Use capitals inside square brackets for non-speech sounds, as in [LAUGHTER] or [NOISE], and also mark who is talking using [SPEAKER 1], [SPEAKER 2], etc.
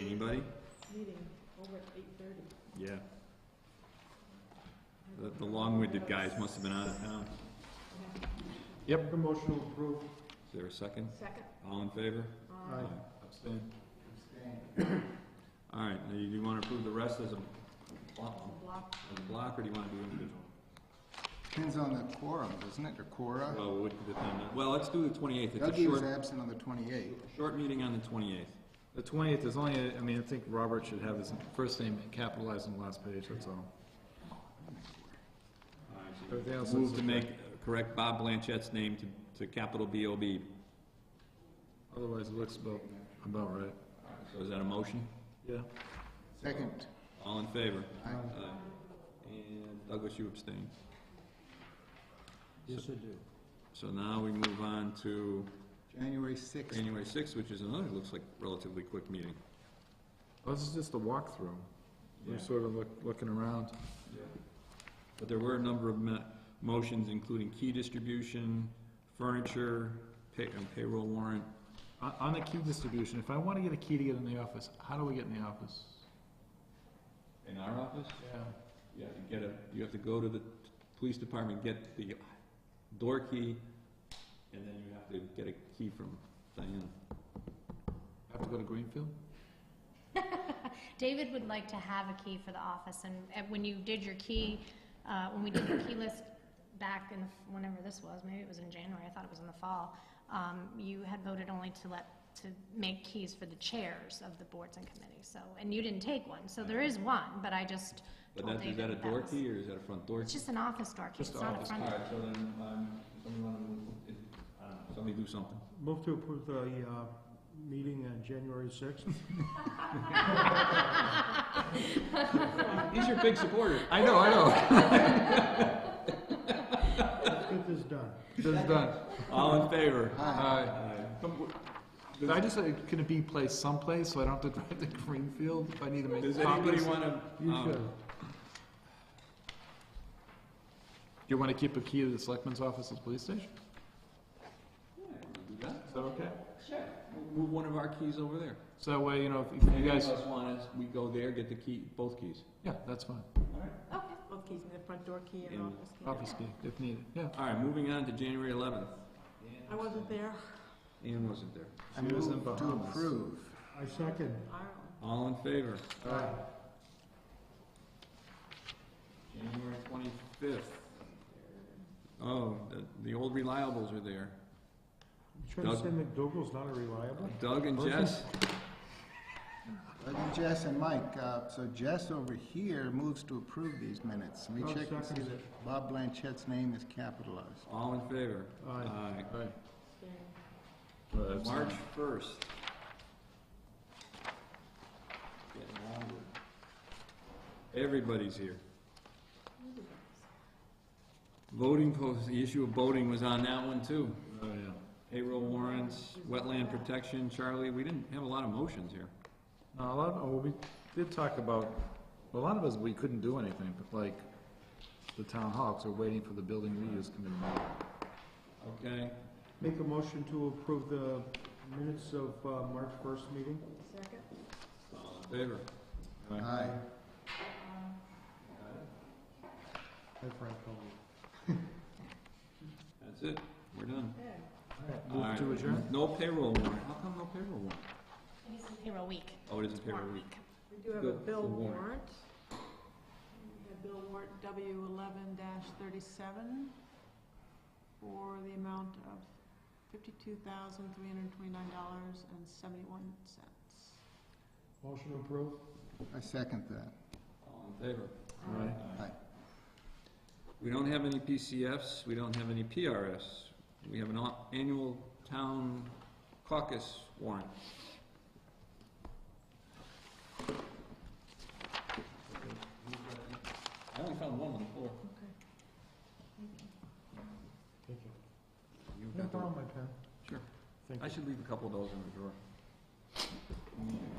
[SPEAKER 1] Anybody?
[SPEAKER 2] meeting over at eight thirty.
[SPEAKER 1] Yeah. The, the long-winded guys must have been out of town. Yep.
[SPEAKER 3] Promotional approve.
[SPEAKER 1] Is there a second?
[SPEAKER 2] Second,
[SPEAKER 1] All in favor?
[SPEAKER 2] uh,
[SPEAKER 1] Abstain. All right, now you, do you wanna approve the rest as a block,
[SPEAKER 2] block,
[SPEAKER 1] as a block, or do you wanna do individual?
[SPEAKER 3] Depends on the quorum, doesn't it, or quora?
[SPEAKER 1] Well, we can defend that. Well, let's do the twenty-eighth. It's a
[SPEAKER 3] Dougie was
[SPEAKER 1] short,
[SPEAKER 3] absent on the twenty-eighth.
[SPEAKER 1] short meeting on the twenty-eighth.
[SPEAKER 4] The twentieth is only, I mean, I think Robert should have his first name capitalized on the last page, that's all. Everything else
[SPEAKER 1] Move
[SPEAKER 4] is
[SPEAKER 1] to
[SPEAKER 4] okay.
[SPEAKER 1] make, correct Bob Blanchett's name to, to capital B-O-B.
[SPEAKER 4] Otherwise, it looks about, about right.
[SPEAKER 1] So is that a motion?
[SPEAKER 4] Yeah.
[SPEAKER 3] Second,
[SPEAKER 1] All in favor?
[SPEAKER 3] Aye.
[SPEAKER 1] Aye. Uh, And Douglas, you abstain.
[SPEAKER 5] Yes, I do.
[SPEAKER 1] So now we move on to
[SPEAKER 3] January sixth.
[SPEAKER 1] January sixth, which is another, looks like relatively quick meeting.
[SPEAKER 4] Oh, This is just a walkthrough.
[SPEAKER 1] Yeah.
[SPEAKER 4] We're sort of look, looking around.
[SPEAKER 1] But there were a number of ma- motions, including key distribution, furniture, pay, and payroll warrant.
[SPEAKER 4] On, on the key distribution, if I wanna get a key to get in the office, how do we get in the office?
[SPEAKER 1] In our office?
[SPEAKER 4] Yeah.
[SPEAKER 1] Yeah, you get a, you have to go to the t- police department, get the door key, and then you have to get a key from Diana.
[SPEAKER 4] Have to go to Greenfield?
[SPEAKER 6] David would like to have a key for the office, and and when you did your key, uh, when we did the key list back in, the- whenever this was, maybe it was in January, I thought it was in the fall, um, you had voted only to let, to make keys for the chairs of the boards and committees, so, and you didn't take one, so there is one, but I just
[SPEAKER 1] But
[SPEAKER 6] told
[SPEAKER 1] that, is that a
[SPEAKER 6] David that
[SPEAKER 1] door
[SPEAKER 6] was.
[SPEAKER 1] key, or is that a front door key?
[SPEAKER 6] It's just an office door key,
[SPEAKER 4] Just
[SPEAKER 6] it's not a
[SPEAKER 4] office
[SPEAKER 6] front
[SPEAKER 1] All
[SPEAKER 6] door. [LAUGHS]
[SPEAKER 1] right, so then, um, somebody wanna move, it- I don't know, somebody do something.
[SPEAKER 5] Move to approve the uh, meeting on January 6th.
[SPEAKER 1] He's your big supporter.
[SPEAKER 4] I know, I know.
[SPEAKER 5] Let's get this done.
[SPEAKER 4] That's [LAUGHS] done.
[SPEAKER 1] All in favor?
[SPEAKER 4] Aye. But I just, uh, can it be placed someplace, so I don't have to [LAUGHS] drive to Greenfield if I need to make copies?
[SPEAKER 1] Does anybody wanna,
[SPEAKER 5] You
[SPEAKER 1] um,
[SPEAKER 5] should.
[SPEAKER 4] Do you want to keep a key to the selectman's office at the police station?
[SPEAKER 1] do that?
[SPEAKER 4] Is that okay?
[SPEAKER 1] Sure. Move one of our keys over there.
[SPEAKER 4] So that way, you know, if- if you
[SPEAKER 1] Any of
[SPEAKER 4] guys,
[SPEAKER 1] us want us, we go there, get the key, both keys.
[SPEAKER 4] yeah, that's fine.
[SPEAKER 2] okay, both keys, and the front door key and
[SPEAKER 1] And
[SPEAKER 2] office key.
[SPEAKER 4] Office key, if needed, yeah.
[SPEAKER 1] All right, moving on to January eleventh.
[SPEAKER 2] I wasn't there,
[SPEAKER 1] Ian wasn't there.
[SPEAKER 3] I
[SPEAKER 4] She was in
[SPEAKER 3] move to
[SPEAKER 4] Bahamas.
[SPEAKER 3] approve.
[SPEAKER 5] I second.
[SPEAKER 2] Ireland.
[SPEAKER 1] All in favor?
[SPEAKER 5] Aye.
[SPEAKER 1] January twenty-fifth. Oh, the, the old reliables are there.
[SPEAKER 5] You trying to
[SPEAKER 1] Doug?
[SPEAKER 5] say McDougal's not a reliable?
[SPEAKER 1] Doug and Jess,
[SPEAKER 3] Doug and Jess and Mike, uh, so Jess over here moves to approve these minutes. Let me
[SPEAKER 5] Doug
[SPEAKER 3] check and see
[SPEAKER 5] seconds
[SPEAKER 3] that Bob Blanchett's name is capitalized.
[SPEAKER 1] all in favor?
[SPEAKER 5] Aye.
[SPEAKER 4] Right.
[SPEAKER 1] Aye. March first. Everybody's here. Voting post, the issue of voting was on that one too.
[SPEAKER 4] Oh, yeah.
[SPEAKER 1] Payroll warrants, wetland protection, Charlie, we didn't have a lot of motions here.
[SPEAKER 4] No, a lot, of- oh, we did talk about, a lot of us, we couldn't do anything, but like, the town hawks are waiting for the building reuse committee meeting.
[SPEAKER 1] Okay,
[SPEAKER 5] Make a motion to approve the minutes of uh, March 1st meeting.
[SPEAKER 2] Second,
[SPEAKER 1] all in favor? Uh-huh.
[SPEAKER 3] Aye.
[SPEAKER 5] Hi, Frank. Cole.
[SPEAKER 1] That's it, we're done.
[SPEAKER 2] okay.
[SPEAKER 1] All
[SPEAKER 4] Move
[SPEAKER 1] right.
[SPEAKER 4] to adjourn?
[SPEAKER 1] No payroll warrant, how come no payroll warrant?
[SPEAKER 6] It is payroll week,
[SPEAKER 1] Oh, it is a payroll
[SPEAKER 6] warrant
[SPEAKER 1] week.
[SPEAKER 6] week.
[SPEAKER 2] We do have a
[SPEAKER 1] Bill-
[SPEAKER 2] bill
[SPEAKER 1] the warrant.
[SPEAKER 2] warrant. We have bill warrant W eleven thirty-seven for the amount of fifty-two thousand, three hundred and twenty-nine dollars and seventy-one cents.
[SPEAKER 5] Motion approved.
[SPEAKER 3] I second that.
[SPEAKER 1] All in favor?
[SPEAKER 4] Right.
[SPEAKER 3] Aye.
[SPEAKER 1] We don't have any PCFs, we don't have any PRS. We have an au- annual town caucus warrant. I only found one on the floor.
[SPEAKER 5] Thank you.
[SPEAKER 1] You've
[SPEAKER 5] No
[SPEAKER 1] got the-
[SPEAKER 5] problem, my pen.
[SPEAKER 1] Sure.
[SPEAKER 5] Thank
[SPEAKER 1] I
[SPEAKER 5] you.
[SPEAKER 1] should leave a couple of those in the drawer.